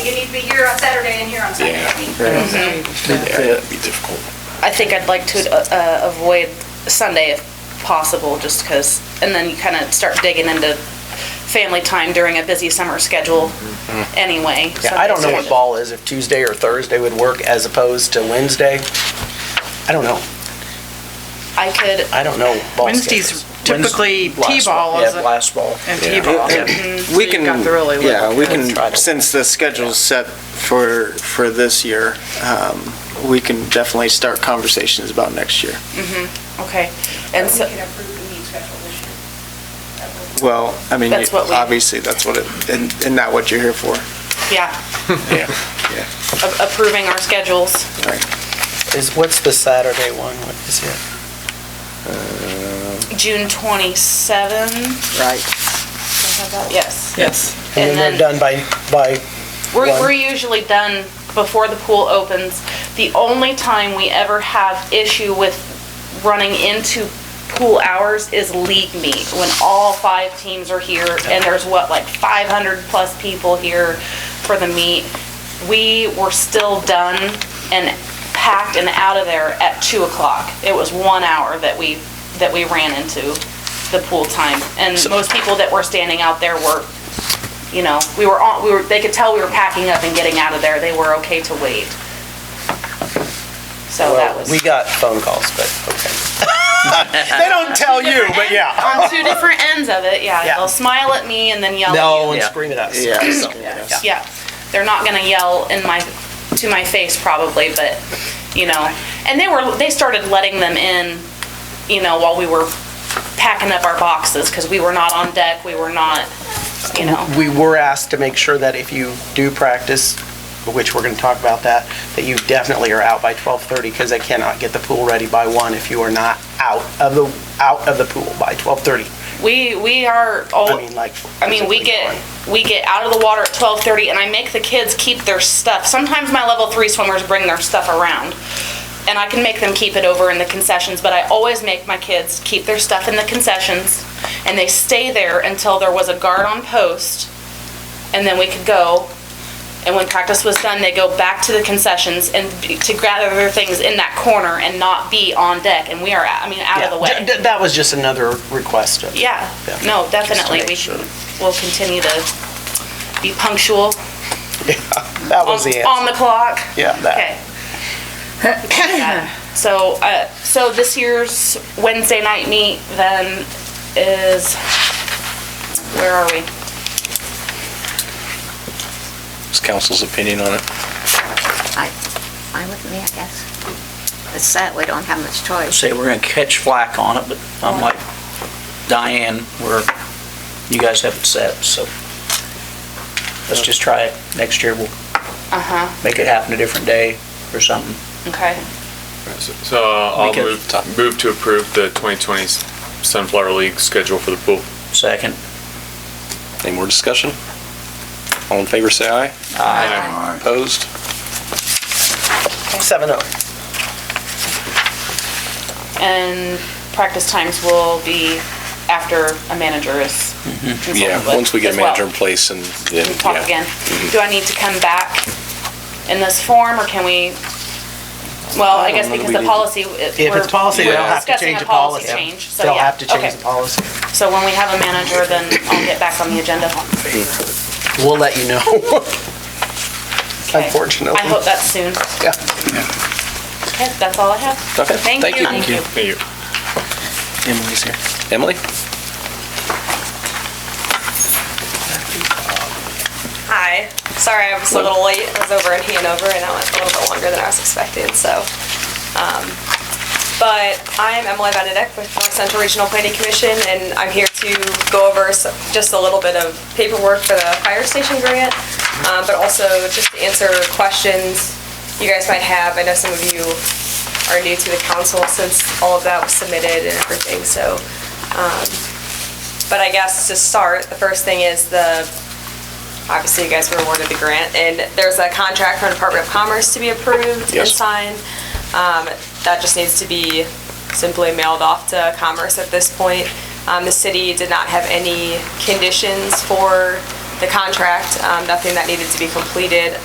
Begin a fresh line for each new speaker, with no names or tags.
You need to be here on Saturday and here on Sunday.
Yeah.
That'd be difficult.
I think I'd like to uh, avoid Sunday if possible, just because, and then you kind of start digging into family time during a busy summer schedule anyway.
Mm-hmm. Yeah, I don't know what
Sundays.
ball is, if Tuesday or Thursday would work as opposed to Wednesday. I don't know.
I could,
I don't know ball
Wednesday's
schedules.
typically
Wednes- last
T-ball,
ball,
is
Yeah,
it?
last ball.
And T-ball. So
We
you've
can,
got the really
yeah,
little-
we
Try
can,
to-
since the schedule's set for, for this year, um, we can definitely start conversations about next year.
okay.
But
And
we
so,
could approve the meeting schedule this year. That would-
Well, I mean,
That's what we-
obviously, that's what it, and, and not what you're here for.
yeah,
Yeah.
a- approving our schedules.
Is, what's the Saturday one? What is it?
June 27?
Right.
Yes.
Yes.
And
And then we're
then,
done by, by,
we're
one.
we're usually done before the pool opens. The only time we ever have issue with running into pool hours is league meet, when all five teams are here, and there's what, like 500-plus people here for the meet. We were still done and packed and out of there at 2 o'clock. It was one hour that we, that we ran into the pool time. And most people that were standing out there were, you know, we were on, we were, they could tell we were packing up and getting out of there. They were okay to wait. So that
well,
was.
we got phone calls, but, okay.
They don't tell you, but yeah.
on two different ends of it, yeah.
Yeah.
They'll smile at me and then yell
No,
at
and
you.
scream at us.
Yeah.
Yeah.
Yeah. They're not gonna yell in my to my face probably, but you know. And they were they started letting them in, you know, while we were packing up our boxes because we were not on deck, we were not you know.
We were asked to make sure that if you do practice, which we're going to talk about that, that you definitely are out by 12:30 because they cannot get the pool ready by one if you are not out of the, out of the pool by 12:30.
We we are all
I mean, like.
I mean, we
physically
get,
gone.
we get out of the water at twelve thirty, and I make the kids keep their stuff. Sometimes my level three swimmers bring their stuff around, and I can make them keep it over in the concessions, but I always make my kids keep their stuff in the concessions, and they stay there until there was a guard on post, and then we could go. And when practice was done, they go back to the concessions and be- to gather their things in that corner and not be on deck, and we are, I mean, out of the
Yeah.
way.
D- d- That was just another request. of-
Yeah,
Yeah.
no, definitely, we should, we'll continue to be punctual.
That
on
was the
On
answer.
the clock,
Yeah, that.
Um, okay. So, uh, so this year's Wednesday night meet then is, where are we?
It's council's opinion on it.
I, I with me, I guess. It's that, we don't have much choice.
say we're going to catch flack on it, but I'm like Diane, we're, you guys have it set, so let's just try it. Next year, we'll
Uh-huh,
make it happen a different day or something.
okay.
So uh, I'll
We can-
move, move to approve the 2020 Sunflower League schedule for the pool.
Second.
Any more discussion? All in favor, say aye.
Aye.
Opposed?
7:00.
And practice times will be after a manager is
Mm-hmm.
consulted
Yeah,
with
once we
as
get a
well.
manager in place and, then,
We talk
yeah.
again. Do I need to come back in this form, or can we, well, I guess because
I don't know that we
the
need to-
policy.
If it's policy, they'll have to change the policy.
Discussing a policy change, so
They'll
yeah,
have to
okay.
change the policy.
So when we have a manager, then I'll get back on the agenda.
We'll let you know, unfortunately.
I hope that's soon.
Yeah.
Okay, that's all I have.
Okay, thank you.
Thank you.
Thank you.
Emily's here.
Emily?
Hi. Sorry I was a little late. I was over in Hanover and I went a little bit longer than I was expecting, so. um, But I'm Emily Benedict with North Central Regional Planning Commission and I'm here to go over s- just a little bit of paperwork for the fire station grant, um, but also just to answer questions you guys might have. I know some of you are new to the council since all of that was submitted and everything, so. um, But I guess to start, the first thing is the obviously you guys were awarded the grant, and there's a contract from Department of Commerce to be approved and
Yes.
signed. Um, That just needs to be simply mailed off to Commerce at this point. Um, The city did not have any conditions for the contract, um, nothing that needed to be completed.